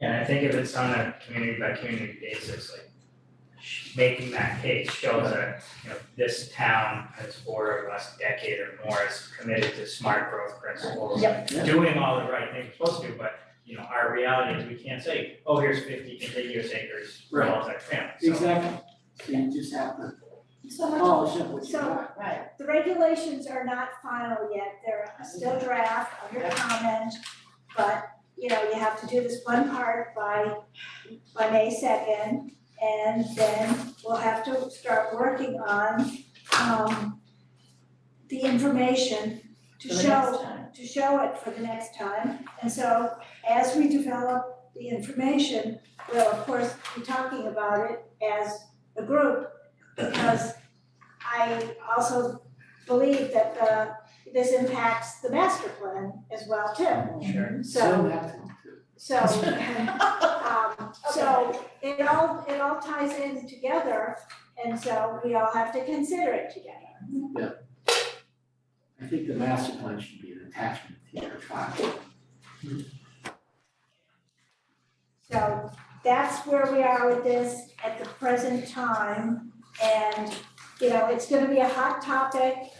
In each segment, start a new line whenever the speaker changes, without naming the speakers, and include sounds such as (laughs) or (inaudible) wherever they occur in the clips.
And I think if it's on a community by community basis, like sh- making that case shows that, you know, this town has for the last decade or more is committed to smart growth principles. Doing all the right things we're supposed to, but you know, our reality is we can't say, oh, here's fifty contiguous acres for
Right.
multifamily, so.
Exactly, so you just have to
So much,
polish up what you
So-
got.
right, the regulations are not final yet, they're still draft, under comment. But, you know, you have to do this one part by, by May second, and then we'll have to start working on, um, the information to show, to show it for the next time. And so, as we develop the information, we'll of course be talking about it as a group, because I also believe that the, this impacts the master plan as well too.
Sure.
So,
have to.
so, um, so it all, it all ties in together, and so we all have to consider it together.
I think the master plan should be an attachment to your file.
So that's where we are with this at the present time. And, you know, it's gonna be a hot topic,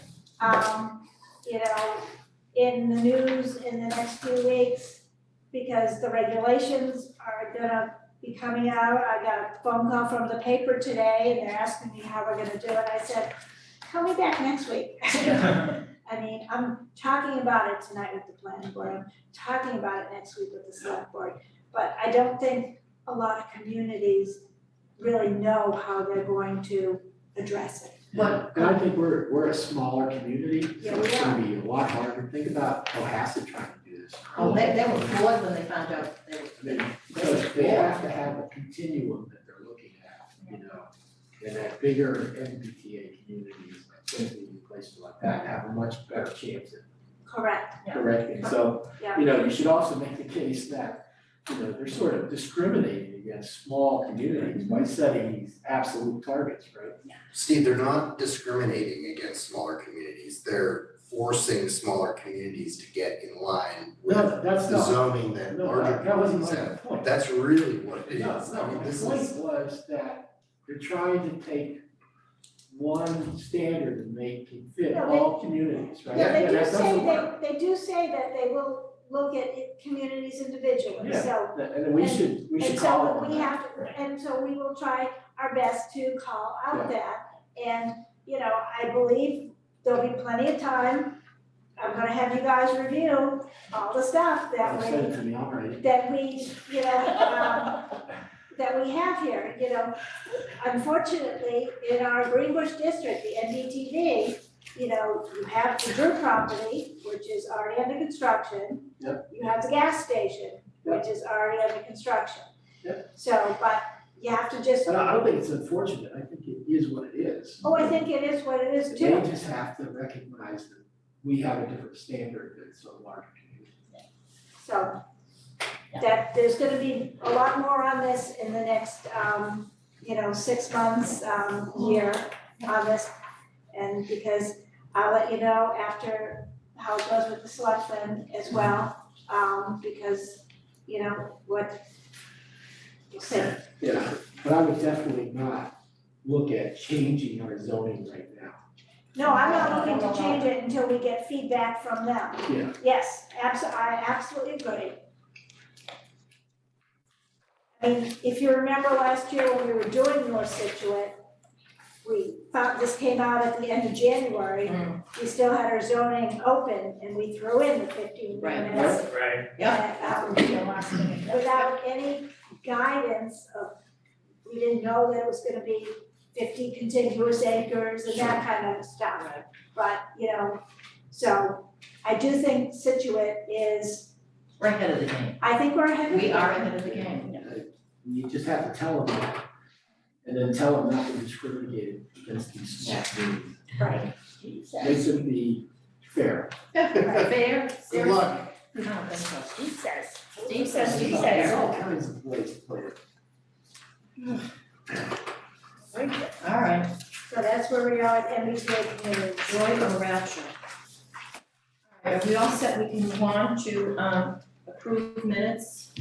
um, you know, in the news in the next few weeks because the regulations are gonna be coming out. I got a phone call from the paper today and they're asking me how we're gonna do it. I said, call me back next week. I mean, I'm talking about it tonight with the planning board, I'm talking about it next week with the select board. But I don't think a lot of communities really know how they're going to address it.
What-
And I think we're, we're a smaller community,
Yeah,
so
we
it's gonna be a lot harder, think about Cohasset trying to do this.
Oh, they, they were bored when they found out they were.
I mean, because they have to have a continuum that they're looking at, you know. And that bigger MBTA communities, like Quincy and places like that, have a much better chance at
Correct,
Yeah.
correcting. So,
Yeah.
you know, you should also make the case that, you know, they're sort of discriminating against small communities by setting these absolute targets, right?
Steve, they're not discriminating against smaller communities, they're forcing smaller communities to get in line with
No, that's
the
not,
zoning that
no,
larger
that, that wasn't
communities
my
have.
point.
That's really what it
No,
is,
no,
I mean,
my
this
point
is,
was that they're trying to take one standard and make it fit
No, they-
all communities, right?
yeah, they
And
do
that doesn't work.
say, they, they do say that they will look at it- communities individually,
Yeah.
so.
And- And we
and-
should, we should
And
call it
so
on
we
that.
have, to, and so we will try our best to call out that. And, you know, I believe there'll be plenty of time. I'm gonna have you guys review all the stuff that
You
way.
said it to me already.
that we, you know, um, that we have here, you know. Unfortunately, in our Green Bush district, the NDTV, you know, you have the Drew property, which is already under construction.
Yep.
You have the gas station, which is already under construction. So, but you have to just,
But I I don't think it's unfortunate, I think it is what it is.
oh, I think it is what it is
They
too.
just have to recognize that we have a different standard than some larger communities.
So that there's gonna be a lot more on this in the next, um, you know, six months, um, year on this. And because I'll let you know after how it goes with the selectmen as well, um, because, you know, what we'll see.
Yeah. But I would definitely not look at changing our zoning right now.
No, I'm not looking to change it until we get feedback from them.
Yeah.
Yes, abso, I absolutely agree. I mean, if you remember last year when we were doing North Situate, we found, this came out at the end of January.
Mm.
We still had our zoning open and we threw in the fifteen
Right.
minutes.
Right,
uh, um, without any guidance of, we didn't know that it was gonna be fifty contiguous acres and that kind of stuff.
Right.
But, you know, so I do think Situate is,
We're ahead of the game.
I think we're ahead of.
We are ahead of the game.
You just have to tell them that, and then tell them not to discriminate against these small communities.
Right,
They should be fair.
(laughs)
Fair,
good
serious.
luck,
I don't think so.
He says.
Steve says
He
he's
There's
fair.
all kinds of ways to play it.
All right,
so that's where we are at MBTA communities.
joy or rapture? All right, are we all set? We can move on to, um, approve minutes